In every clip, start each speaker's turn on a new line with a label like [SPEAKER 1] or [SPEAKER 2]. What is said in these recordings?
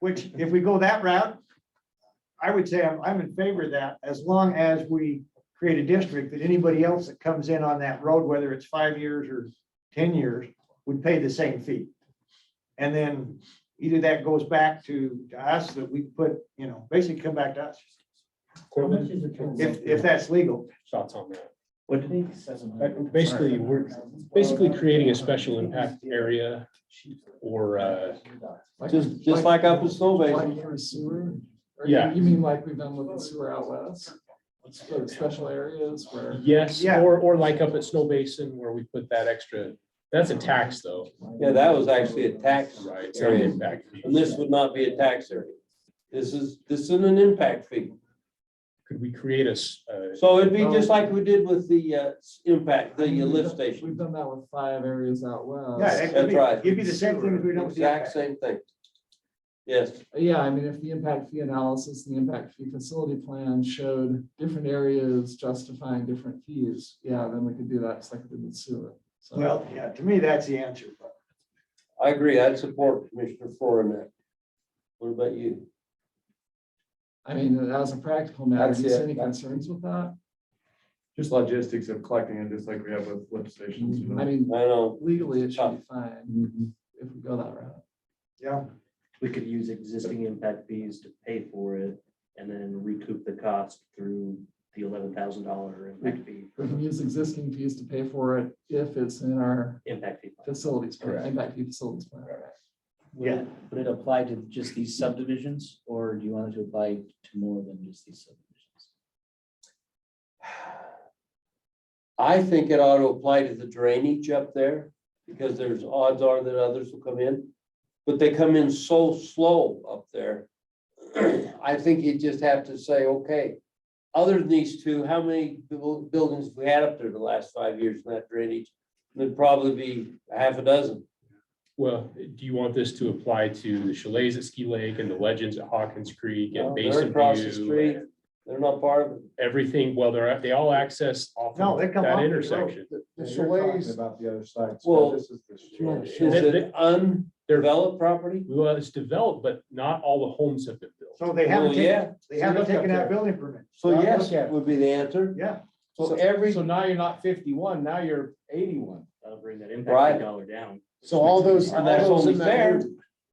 [SPEAKER 1] Which, if we go that route, I would say I'm, I'm in favor of that, as long as we create a district that anybody else that comes in on that road, whether it's five years or ten years, would pay the same fee. And then either that goes back to to us, that we put, you know, basically come back to us,
[SPEAKER 2] How much is it?
[SPEAKER 1] if, if that's legal.
[SPEAKER 3] Thoughts on that?
[SPEAKER 4] What did he?
[SPEAKER 3] But Basically, we're basically creating a special impact area or, uh,
[SPEAKER 4] Just, just like up in Snow
[SPEAKER 5] Like
[SPEAKER 4] Basin.
[SPEAKER 5] for sewer? Or
[SPEAKER 3] Yeah.
[SPEAKER 5] You mean like we've done with the sewer outlets? Sort of special areas where.
[SPEAKER 3] yes,
[SPEAKER 1] Yeah.
[SPEAKER 3] or, or like up at Snow Basin where we put that extra, that's a tax though,
[SPEAKER 4] Yeah, that was actually a tax,
[SPEAKER 3] right? It's not an impact fee.
[SPEAKER 4] and this would not be a tax area. This is, this is an impact fee.
[SPEAKER 3] Could we create a, s- uh,
[SPEAKER 4] So it'd be just like we did with the, uh, impact, the uh, lift station.
[SPEAKER 5] We've done that with five areas out west.
[SPEAKER 1] Yeah, it could
[SPEAKER 4] That's
[SPEAKER 1] be,
[SPEAKER 4] right.
[SPEAKER 1] it'd be the same thing if we don't. do
[SPEAKER 4] Exact
[SPEAKER 1] that.
[SPEAKER 4] same thing. Yes,
[SPEAKER 5] Yeah, I mean, if the impact fee analysis and the impact fee facility plan showed different areas justifying different fees, yeah, then we could do that, just like we did with sewer. So-
[SPEAKER 1] Well, yeah, to me, that's the answer, but
[SPEAKER 4] I agree. I'd support Commissioner Flora in that. What about you?
[SPEAKER 5] I mean, as a practical matter, do you
[SPEAKER 4] That's
[SPEAKER 5] see
[SPEAKER 4] it.
[SPEAKER 5] any concerns with that?
[SPEAKER 6] Just logistics of collecting it, just like we have with lift stations, you
[SPEAKER 5] Mm-hmm. I
[SPEAKER 6] know.
[SPEAKER 5] mean,
[SPEAKER 4] I know.
[SPEAKER 5] legally, it should be fine if we go that route.
[SPEAKER 1] yeah,
[SPEAKER 7] Mm-hmm. we could use existing impact fees to pay for it and then recoup the cost through the eleven thousand dollar impact fee,
[SPEAKER 5] We can use existing fees to pay for it if it's in our
[SPEAKER 7] impact fee. plan.
[SPEAKER 5] facilities, plan,
[SPEAKER 3] Correct.
[SPEAKER 5] impact fee facilities plan.
[SPEAKER 1] yeah.
[SPEAKER 8] Would it apply to just these subdivisions, or do you want it to apply to more than just these subdivisions?
[SPEAKER 4] I think it ought to apply to the drainage up there because there's odds are that others will come in. But they come in so slow up there. I think you just have to say, okay, other than these two, how many buil- buildings have we had up there the last five years in that drainage? There'd probably be a half a dozen.
[SPEAKER 3] well, do you want this to apply to the chalets at Ski Lake and the legends at Hawkins Creek
[SPEAKER 4] No,
[SPEAKER 3] and
[SPEAKER 4] they're
[SPEAKER 3] Basin
[SPEAKER 4] across the
[SPEAKER 3] View?
[SPEAKER 4] street.
[SPEAKER 3] and-
[SPEAKER 4] They're not part of it.
[SPEAKER 3] everything, well, they're, they all access off
[SPEAKER 1] No,
[SPEAKER 3] of
[SPEAKER 1] they come off the
[SPEAKER 3] that
[SPEAKER 1] road.
[SPEAKER 3] intersection.
[SPEAKER 2] The
[SPEAKER 6] You're talking
[SPEAKER 2] Shalays.
[SPEAKER 6] About the other side. so
[SPEAKER 4] Well,
[SPEAKER 6] this is the
[SPEAKER 4] Is
[SPEAKER 6] shore.
[SPEAKER 4] it undeveloped property?
[SPEAKER 3] Well, it's developed, but not all the homes have been built.
[SPEAKER 1] So they
[SPEAKER 4] Well,
[SPEAKER 1] haven't taken,
[SPEAKER 4] yeah,
[SPEAKER 1] they haven't
[SPEAKER 2] look up
[SPEAKER 1] taken out
[SPEAKER 2] there.
[SPEAKER 1] building permits,
[SPEAKER 4] so
[SPEAKER 2] Look
[SPEAKER 4] yes
[SPEAKER 2] at it.
[SPEAKER 4] would be the answer.
[SPEAKER 1] yeah.
[SPEAKER 4] So every,
[SPEAKER 2] So now you're not fifty-one, now you're eighty-one.
[SPEAKER 7] That'll bring that
[SPEAKER 4] Right.
[SPEAKER 7] impact fee dollar down.
[SPEAKER 2] So all those.
[SPEAKER 4] and that's
[SPEAKER 2] all those
[SPEAKER 4] only
[SPEAKER 2] in that
[SPEAKER 4] fair.
[SPEAKER 2] area-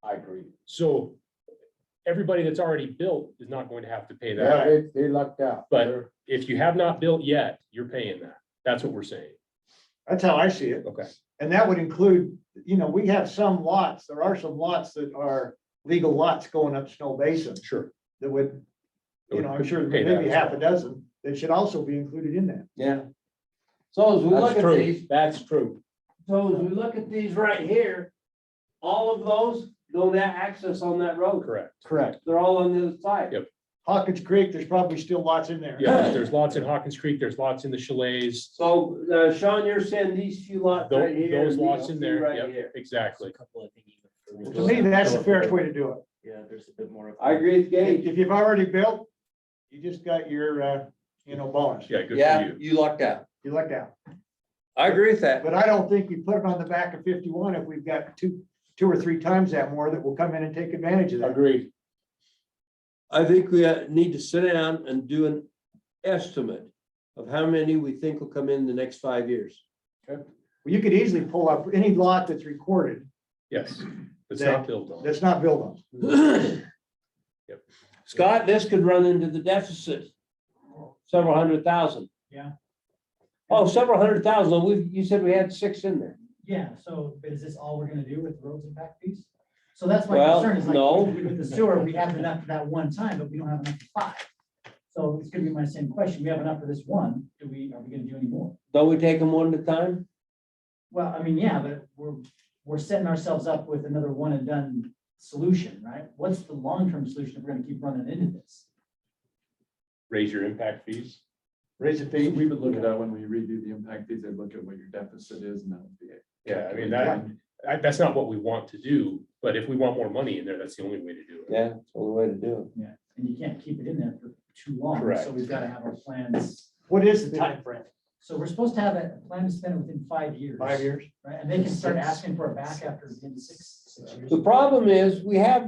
[SPEAKER 2] I agree.
[SPEAKER 3] So everybody that's already built is not going to have to pay
[SPEAKER 2] Yeah,
[SPEAKER 3] that.
[SPEAKER 2] they, they lucked out.
[SPEAKER 3] But-
[SPEAKER 2] They're-
[SPEAKER 3] If you have not built yet, you're paying that. That's what we're saying.
[SPEAKER 1] That's how I see it.
[SPEAKER 3] Okay.
[SPEAKER 1] And that would include, you know, we have some lots, there are some lots that are legal lots going up Snow Basin
[SPEAKER 3] Sure.
[SPEAKER 1] that would, you know, I'm sure
[SPEAKER 3] Okay, that
[SPEAKER 1] maybe
[SPEAKER 3] is-
[SPEAKER 1] half a dozen that should also be included in that.
[SPEAKER 4] yeah. So as we look
[SPEAKER 2] That's
[SPEAKER 4] at
[SPEAKER 2] true,
[SPEAKER 4] these,
[SPEAKER 2] that's true.
[SPEAKER 4] so as we look at these right here, all of those don't have access on that road.
[SPEAKER 3] Correct.
[SPEAKER 2] Correct.
[SPEAKER 4] They're all on the other side.
[SPEAKER 3] Yep.
[SPEAKER 1] Hawkins Creek, there's probably still lots in there.
[SPEAKER 3] Yeah, there's lots in Hawkins Creek, there's lots in the chalets.
[SPEAKER 4] So uh, Sean, you're saying these few
[SPEAKER 3] Tho-
[SPEAKER 4] lots right here.
[SPEAKER 3] Those
[SPEAKER 4] and these
[SPEAKER 3] lots in
[SPEAKER 4] two
[SPEAKER 3] there,
[SPEAKER 4] Right
[SPEAKER 3] yep,
[SPEAKER 4] here.
[SPEAKER 3] exactly.
[SPEAKER 7] Couple, I think, even for
[SPEAKER 1] To me, that's the fairest way to do it.
[SPEAKER 7] Yeah, there's a bit more. of-
[SPEAKER 4] I agree with Gage.
[SPEAKER 1] If you've already built, you just got your, uh, you know, bonus,
[SPEAKER 3] Yeah, good for
[SPEAKER 4] Yeah,
[SPEAKER 3] you.
[SPEAKER 4] you lucked out.
[SPEAKER 1] you lucked out.
[SPEAKER 4] I agree with that.
[SPEAKER 1] But I don't think we put it on the back of fifty-one if we've got two, two or three times that more that will come in and take advantage of that.
[SPEAKER 2] Agreed.
[SPEAKER 4] I think we uh, need to sit down and do an estimate of how many we think will come in the next five years.
[SPEAKER 1] You could easily pull up any lot that's recorded
[SPEAKER 3] Yes. It's
[SPEAKER 1] That-
[SPEAKER 3] not built on.
[SPEAKER 1] That's not built on.
[SPEAKER 4] Scott, this could run into the deficit, several hundred thousand.
[SPEAKER 9] Yeah.
[SPEAKER 4] Oh, several hundred thousand, we, you said we had six in there.
[SPEAKER 9] Yeah, so but is this all we're gonna do with roads and back fees? So that's my
[SPEAKER 4] Well,
[SPEAKER 9] concern is like,
[SPEAKER 4] no.
[SPEAKER 9] with the sewer, we have enough for that one time, but we don't have enough for five. So it's gonna be my same question. We have enough for this one. Do we, are we gonna do any more?
[SPEAKER 4] Don't we take them one at a time?
[SPEAKER 9] Well, I mean, yeah, but we're, we're setting ourselves up with another one and done solution, right? What's the long-term solution if we're gonna keep running into this?
[SPEAKER 3] Raise your impact fees.
[SPEAKER 1] Raise the
[SPEAKER 6] We
[SPEAKER 1] fee.
[SPEAKER 6] would look at that when we redo the impact fees, I'd look at what your deficit is and that would be it.
[SPEAKER 3] Yeah, I mean, that, I- that's not what we want to do, but if we want more money in there, that's the only way to do it.
[SPEAKER 4] Yeah, that's the only way to do
[SPEAKER 9] And you can't keep it in there for too long,
[SPEAKER 3] Correct.
[SPEAKER 9] so we've gotta have our plans.
[SPEAKER 1] What is the time frame?
[SPEAKER 9] So we're supposed to have a plan to spend within five years.
[SPEAKER 1] Five years?
[SPEAKER 9] Right, and they can start asking for it back after the end of six, six
[SPEAKER 4] it.
[SPEAKER 9] years.
[SPEAKER 4] The problem is, we have